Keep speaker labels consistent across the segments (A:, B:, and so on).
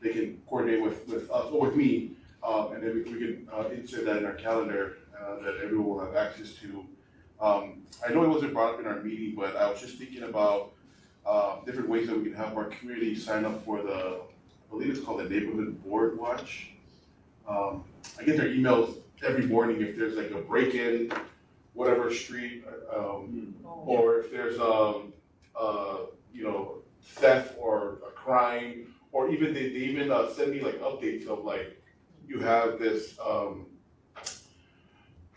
A: they can coordinate with, with us, or with me, um, and then we we can, uh, insert that in our calendar, uh, that everyone will have access to. Um, I know it wasn't brought up in our meeting, but I was just thinking about, uh, different ways that we can have our community sign up for the, I believe it's called the Neighborhood Board Watch. Um, I get their emails every morning if there's like a break-in, whatever street, uh, um, or if there's, um, uh, you know, theft or a crime, or even they, they even uh, send me like updates of like, you have this, um,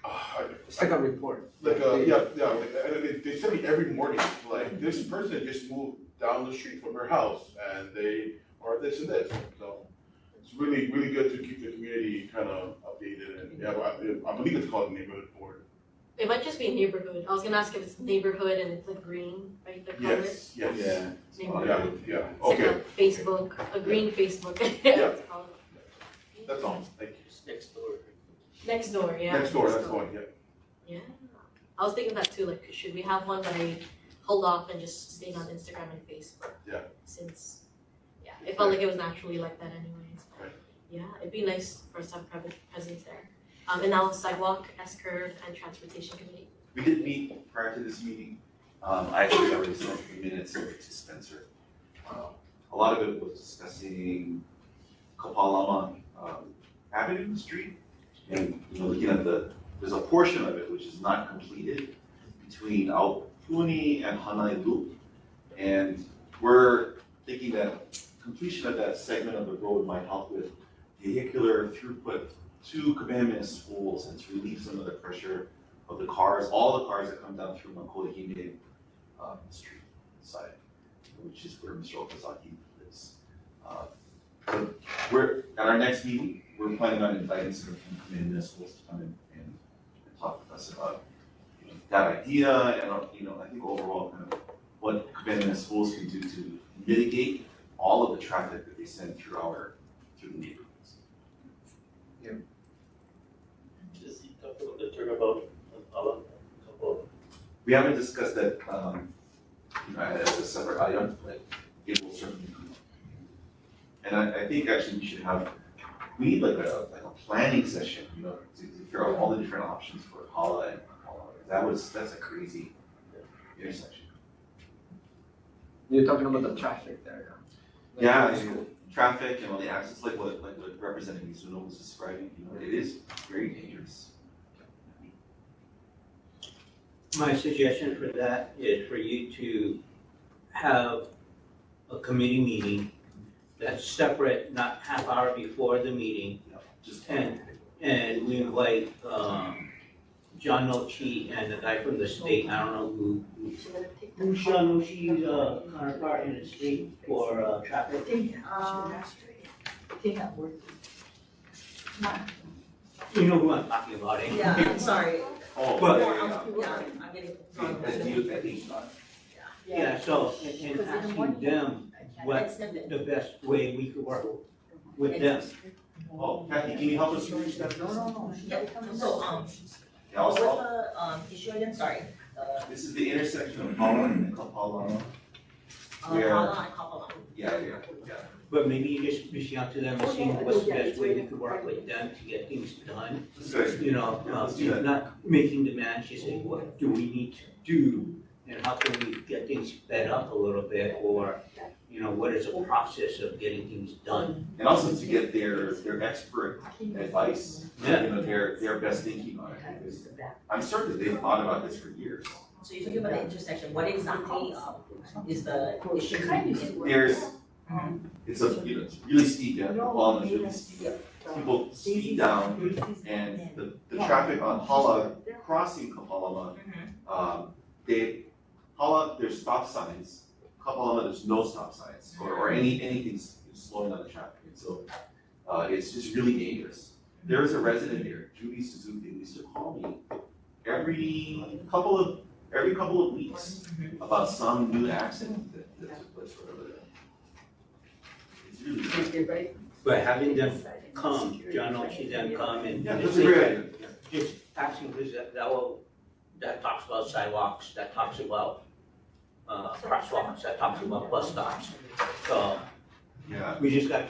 A: uh,
B: It's like a report.
A: like, uh, yeah, yeah, like, and they, they send me every morning, like, this person just moved down the street from her house, and they are this and this, so. It's really, really good to keep the community kind of updated, and, yeah, I, I believe it's called neighborhood board.
C: It might just be neighborhood. I was gonna ask if it's neighborhood and it's like green, right, the color?
A: Yes, yes.
D: Yeah.
C: Neighborhood.
A: Yeah, yeah,
C: It's like
A: okay,
C: a Facebook, a green Facebook. It's called
A: that's all, thank you.
E: next door.
C: Next door, yeah.
A: Next door, that's the one, yeah.
C: Yeah. I was thinking that too, like, should we have one that I hold off and just stay on Instagram and Facebook?
A: Yeah.
C: Since, yeah, it felt like it was naturally like that anyways.
A: Right.
C: Yeah, it'd be nice for us to have private presence there. Um, and now sidewalk, S curve, and transportation committee.
D: We did meet prior to this meeting, um, I actually already sent the minutes over to Spencer. Um, A lot of it was discussing Kapalama, um, Avenue Street, and, you know, looking at the, there's a portion of it which is not completed between Aupuni and Hanai Loop. And we're thinking that completion of that segment of the road might help with vehicular throughput to Kamehameha schools and to relieve some of the pressure of the cars, all the cars that come down through Makohine um, Street side, which is where Mr. Okazaki lives. Uh, so We're, at our next meeting, we're planning on inviting some of the community schools to come in and and talk with us about you know, that idea and, uh, you know, I think overall kind of what Kamehameha schools can do to mitigate all of the traffic that they send through our, through the neighborhoods.
E: Just talk a little bit about, about, about,
D: We haven't discussed that, um, you know, as a separate item, but it will certainly come up. And I, I think actually we should have, we need like a, like a planning session, you know, to, to figure out all the different options for Hala and Kapala. That was, that's a crazy intersection.
B: You're talking about the traffic there, yeah?
D: Yeah, and traffic and all the access, like what, like what Representative Mizuno was describing, you know, it is very dangerous.
F: My suggestion for that is for you to have a committee meeting that's separate, not half hour before the meeting,
D: Just.
F: And- and we invite, um, John Nochi and the guy from the state, I don't know who,
C: Should we take
F: who
C: them?
F: John Nochi's, uh, counterpart in the state for, uh, traffic.
G: uh,
F: You know who I'm talking about, eh?
G: Yeah, I'm sorry.
D: Oh,
F: But-
D: yeah, yeah, yeah.
G: Yeah, I'm getting.
D: That's you, I think, uh,
F: Yeah, so, and and asking them what the best way we could work with them.
D: oh, Kathy, can you help us reach that?
G: No, no, no. Yeah, so, um,
D: Yeah, I'll-
G: what's
D: I'll-
G: the, um, issue again, sorry, uh,
D: This is the intersection of Holland and Kapalama.
G: uh,
D: Where-
G: Hala and Kapalama.
D: Yeah, yeah, yeah.
F: But maybe you just reach out to them and see what's the best way we could work with them to get things done.
D: This is-
F: You know, uh, you're not making demands, just saying, what do we need to do? And how can we get things sped up a little bit, or, you know, what is the process of getting things done?
D: And also to get their, their expert advice, you know, their, their best thinking on it. because I'm certain that they've thought about this for years.
G: So you're talking about the intersection, what exactly, um, is the issue?
D: There's,
G: Mm-hmm.
D: it's a, you know, it's really steep, yeah, Kapalama is really steep. People speed down and the, the traffic on Hala crossing Kapalama
G: Mhm.
D: um, they, Hala, there's stop signs, Kapalama, there's no stop signs, or, or any, anything s- slowing down the traffic, and so, uh, it's just really dangerous. There is a resident here, Judy Suzuki, who used to call me every couple of, every couple of weeks about some new accident that, that took place or whatever. It's really,
F: But having them come, John Oshie them come and.
D: yeah, that's a great idea, yeah.
F: Just asking, because that, that will, that talks about sidewalks, that talks about, uh, crosswalks, that talks about bus stops. So
D: yeah.
F: we just got